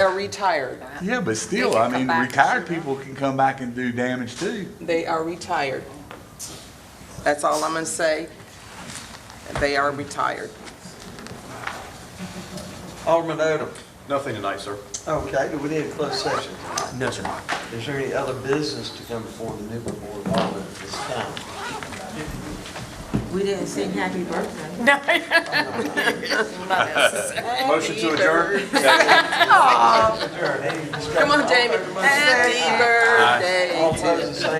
are retired. Yeah, but still, They can I come mean, back. retired people can come back and do damage too. They are retired. That's all I'm gonna say. They are retired. Alderman Odom, Nothing tonight, sir. okay, do Oh, we need a closed session? No, sir. Is there any other business to come before the Newburgh Board of Aldermen at this time? We didn't sing happy birthday. Motion to adjourn? Adjourn, any discussion? Come on, Jamie. Happy birthday All opposed, the same